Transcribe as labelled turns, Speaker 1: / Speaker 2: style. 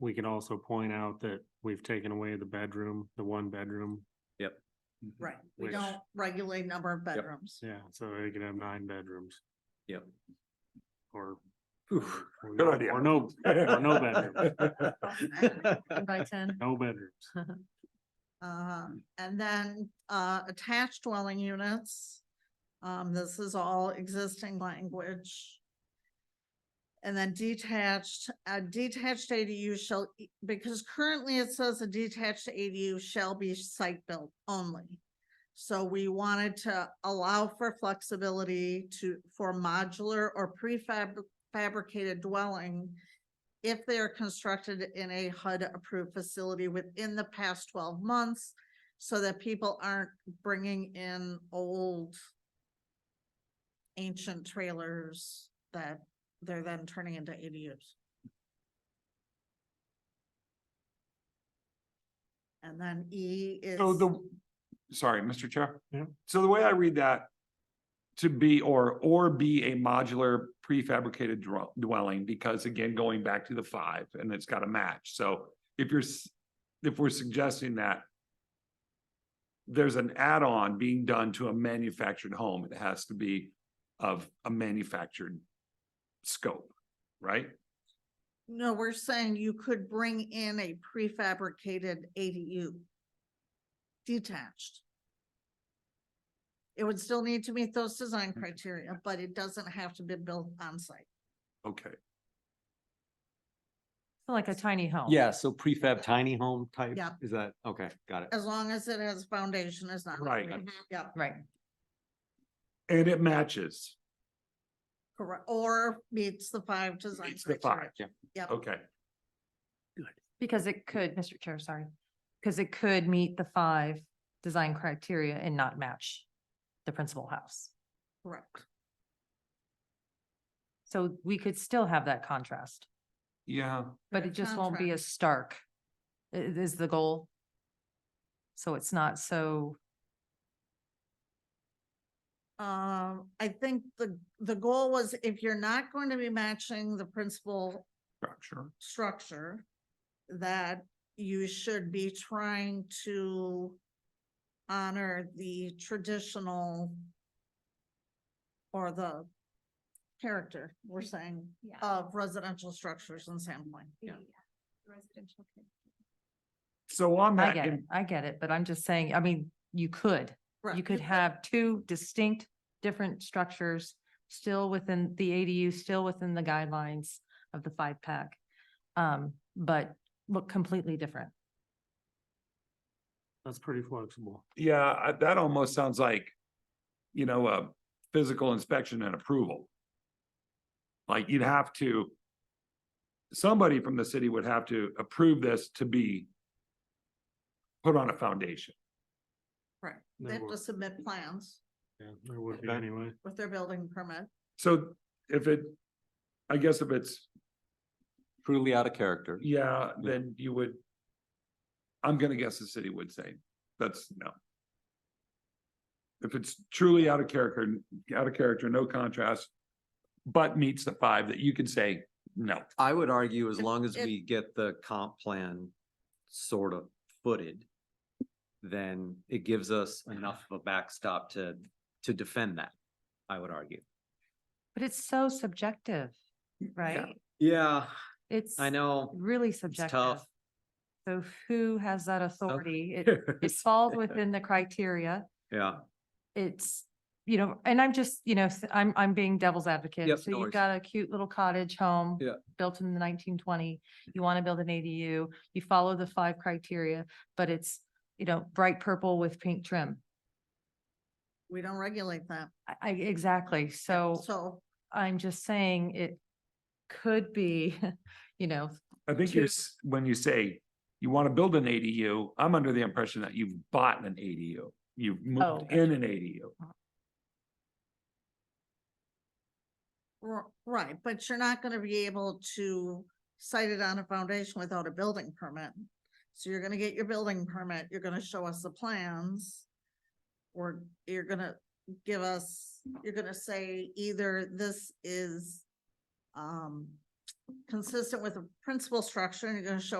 Speaker 1: we could also point out that we've taken away the bedroom, the one bedroom.
Speaker 2: Mm-hmm.
Speaker 3: Right, we
Speaker 1: Which-
Speaker 3: don't regulate number of bedrooms.
Speaker 1: Yeah, so they could have nine bedrooms.
Speaker 4: Yep.
Speaker 1: Or.
Speaker 4: Oof.
Speaker 1: or
Speaker 2: Good
Speaker 1: no-
Speaker 2: idea.
Speaker 1: Or no, or no bedrooms,
Speaker 5: by ten.
Speaker 1: no bedrooms.
Speaker 3: Um, and then, uh, attached dwelling units. Um, this is all existing language. And then detached, a detached ADU shall, e- because currently it says a detached ADU shall be site built only. So we wanted to allow for flexibility to, for modular or prefab fabricated dwelling if they are constructed in a HUD-approved facility within the past twelve months, so that people aren't bringing in old ancient trailers that they're then turning into ADUs. And then E is.
Speaker 2: So the, sorry, Mr. Chair.
Speaker 1: Yeah.
Speaker 2: So the way I read that, to be or, or be a modular prefabricated dwell- dwelling, because again, going back to the five, and it's got to match. So if you're, s- if we're suggesting that there's an add-on being done to a manufactured home, it has to be of a manufactured scope, right?
Speaker 3: No, we're saying you could bring in a prefabricated ADU. Detached. It would still need to meet those design
Speaker 2: Mm-hmm.
Speaker 3: criteria, but it doesn't have to be built on site.
Speaker 2: Okay.
Speaker 5: Like a tiny home.
Speaker 4: Yeah, so prefab tiny home type,
Speaker 3: Yep.
Speaker 4: is that, okay, got it.
Speaker 3: as long as it has foundation, it's not.
Speaker 2: Right.
Speaker 3: concrete. Yep,
Speaker 5: Right.
Speaker 2: And it matches.
Speaker 3: correct, or meets the five design
Speaker 2: It's the
Speaker 3: criteria.
Speaker 2: five.
Speaker 4: Yeah.
Speaker 3: Yep.
Speaker 2: Okay.
Speaker 5: Because it could, Mr. Chair, sorry, because it could meet the five design criteria and not match the principal house.
Speaker 3: Correct.
Speaker 5: So we could still have that contrast,
Speaker 2: Yeah.
Speaker 5: but
Speaker 3: Yeah,
Speaker 5: it just won't be as stark i- is the goal. So it's not so,
Speaker 3: Um, I think the, the goal was if you're not going to be matching the principal
Speaker 2: Structure.
Speaker 3: structure that you should be trying to honor the traditional or the character, we're saying,
Speaker 6: Yeah.
Speaker 3: of residential structures in Sandpoint.
Speaker 6: the, uh, Residential. code.
Speaker 2: So on
Speaker 5: I
Speaker 2: that,
Speaker 5: get it,
Speaker 2: in-
Speaker 5: I get it, but I'm just saying, I mean, you could,
Speaker 3: Right.
Speaker 5: you could have two distinct, different structures still within the ADU, still within the guidelines of the five pack. Um, but look completely different.
Speaker 1: That's pretty flexible.
Speaker 2: yeah, I- that almost sounds like, you know, a physical inspection and approval. Like you'd have to, somebody from the city would have to approve this to be put on a foundation.
Speaker 3: Right,
Speaker 1: There
Speaker 3: they have
Speaker 1: were-
Speaker 3: to submit plans
Speaker 1: Yeah, there would be
Speaker 4: Okay.
Speaker 1: anyway.
Speaker 3: with their building permit.
Speaker 2: So if it, I guess if it's,
Speaker 4: Truly out of character.
Speaker 2: yeah,
Speaker 4: Yeah.
Speaker 2: then you would, I'm gonna guess the city would say, that's no. If it's truly out of character, out of character, no contrast, but meets the five that you can say, no.
Speaker 4: I would argue as
Speaker 3: If-
Speaker 4: long as
Speaker 3: if-
Speaker 4: we get the comp plan sort of footed, then it gives us enough of a backstop to, to defend that, I would argue.
Speaker 5: But it's so subjective, right?
Speaker 4: Yeah,
Speaker 5: It's
Speaker 4: I know.
Speaker 5: really
Speaker 4: It's
Speaker 5: subjective.
Speaker 4: tough.
Speaker 5: So who has that authority? It, it falls within the criteria.
Speaker 4: Yeah,
Speaker 5: It's, you know, and I'm just, you know, s- I'm, I'm being devil's
Speaker 4: Yep,
Speaker 5: advocate. So
Speaker 4: no
Speaker 5: you've
Speaker 4: worries.
Speaker 5: got a cute little cottage home.
Speaker 4: Yeah.
Speaker 5: Built in the nineteen twenty, you want to build an ADU, you follow the five criteria, but it's, you know, bright purple with pink trim.
Speaker 3: We don't regulate that.
Speaker 5: I, I, exactly. So
Speaker 3: So
Speaker 5: I'm just saying it could be, you know,
Speaker 2: I think you're,
Speaker 5: to-
Speaker 2: s- when you say you want to build an ADU, I'm under the impression that you've bought an ADU. You've
Speaker 5: Oh.
Speaker 2: moved in an ADU.
Speaker 3: R- Right, but you're not gonna be able to site it on a foundation without a building permit. So you're gonna get your building permit, you're gonna show us the plans. Or you're gonna give us, you're gonna say either this is um consistent with the principal structure, and you're gonna show